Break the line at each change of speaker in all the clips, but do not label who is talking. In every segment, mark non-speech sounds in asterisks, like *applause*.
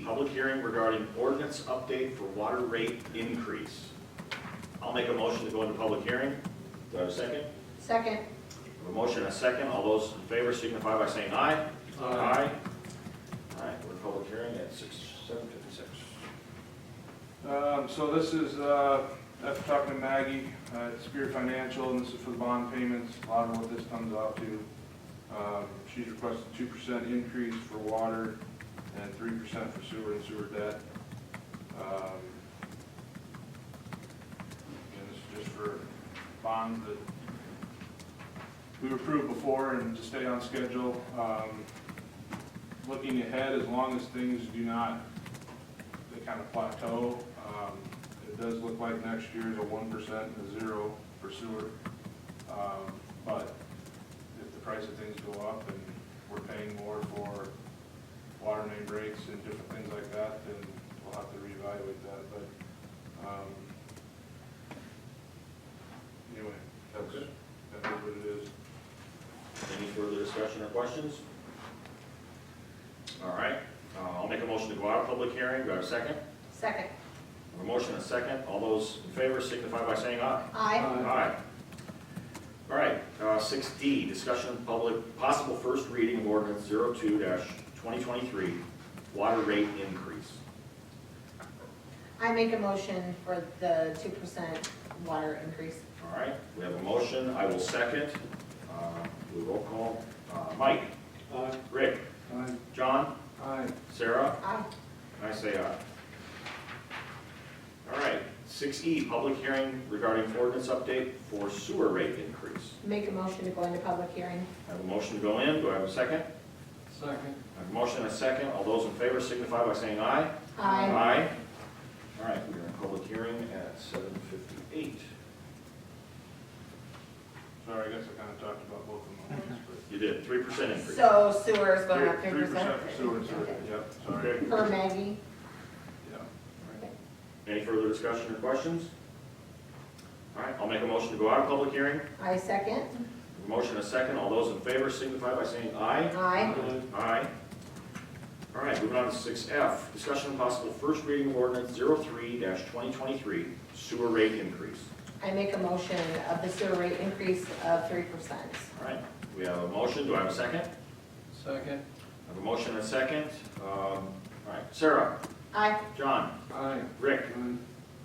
public hearing regarding ordinance update for water rate increase. I'll make a motion to go into public hearing. Do I have a second?
Second.
A motion and a second, all those in favor signify by saying aye. Aye. All right, we're in public hearing at six, seven fifty-six.
Um, So this is, uh, after talking to Maggie, uh, it's Spear Financial, and this is for the bond payments, a lot of what this comes out to. Um, She's requested two percent increase for water and three percent for sewer and sewer debt. Um, And this is just for bonds that we approved before and to stay on schedule. Um, Looking ahead, as long as things do not they kind of plateau. Um, It does look like next year is a one percent and a zero for sewer. Um, But if the price of things go up and we're paying more for water main breaks and different things like that, then we'll have to reevaluate that, but, um, anyway, that's,
Okay.
that's what it is.
Any further discussion or questions? All right, uh, I'll make a motion to go out of public hearing, do I have a second?
Second.
A motion and a second, all those in favor signify by saying aye.
Aye.
Aye. All right, uh, six D, discussion of public, possible first reading of ordinance zero-two twenty-twenty-three, water rate increase.
I make a motion for the two percent water increase.
All right, we have a motion, I will second. Uh, We roll call, Uh, Mike,
Aye.
Rick,
Aye.
John,
Aye.
Sarah,
Aye.
and I say aye. All right, six E, public hearing regarding ordinance update for sewer rate increase.
Make a motion to go into public hearing.
I have a motion to go in, do I have a second?
Second.
I have a motion and a second, all those in favor signify by saying aye.
Aye.
Aye. All right, we are in public hearing at seven fifty-eight.
Sorry, I guess I kind of talked about both of them, at once,
*laughs* You did, three percent increase.
So sewer is
but.
going up three
percent
percent?
for sewer and sewer, yep, sorry,
Okay.
Per Maggie?
yeah.
Any further discussion or questions? All right, I'll make a motion to go out of public hearing.
I second.
Motion a second, all those in favor signify by saying aye.
Aye.
Aye. All right, moving on to six F, discussion of possible first reading of ordinance zero-three twenty-twenty-three, sewer rate increase.
I make a motion of the sewer rate increase of three percent.
All right, we have a motion, do I have a second?
Second.
I have a motion and a second. Um, All right, Sarah,
Aye.
John,
Aye.
Rick,
Aye.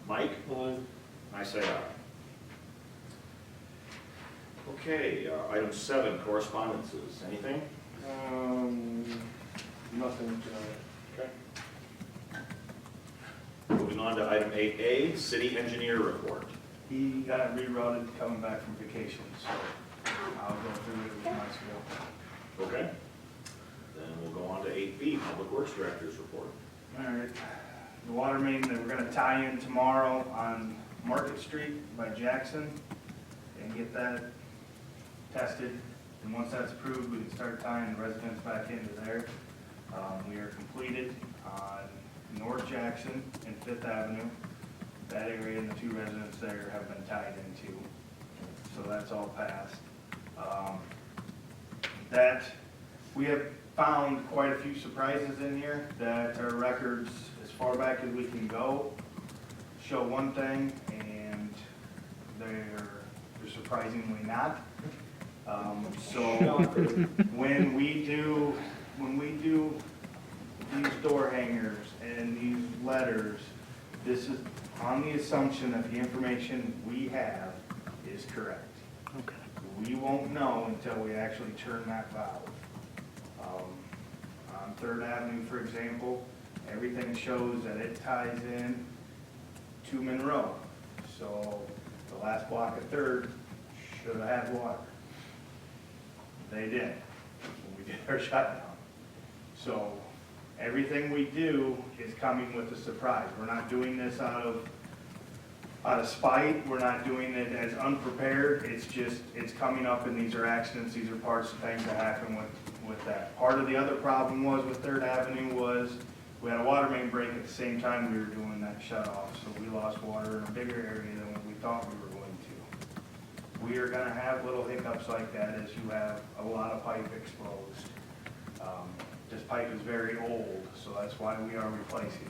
Mike,
Aye.
I say aye. Okay, uh, item seven, correspondences, anything?
Um, nothing tonight.
Okay. Moving on to item eight A, city engineer report.
He got rerouted coming back from vacation, so I'll go through it with my skill.
Okay. Then we'll go on to eight B, public works director's report.
All right, the water main that we're gonna tie in tomorrow on Market Street by Jackson and get that tested. And once that's approved, we can start tying residents back into there. Um, we are completed on North Jackson and Fifth Avenue. That area and the two residents there have been tied into, so that's all passed. Um, that, we have found quite a few surprises in here that our records, as far back as we can go, show one thing and they're they're surprisingly not. Um, so when we do, when we do these door hangers and these letters, this is on the assumption that the information we have is correct. We won't know until we actually turn that valve. Um, On Third Avenue, for example, everything shows that it ties in to Monroe. So the last block of Third should have had water. They didn't, when we *laughs* did our shutdown. So everything we do is coming with a surprise. We're not doing this out of out of spite, we're not doing it as unprepared, it's just, it's coming up and these are accidents, these are parts of things that happen with, with that. Part of the other problem was with Third Avenue was, we had a water main break at the same time we were doing that shut off, so we lost water in a bigger area than what we thought we were going to. We are gonna have little hiccups like that as you have a lot of pipe exposed. Um, This pipe is very old, so that's why we are replacing it.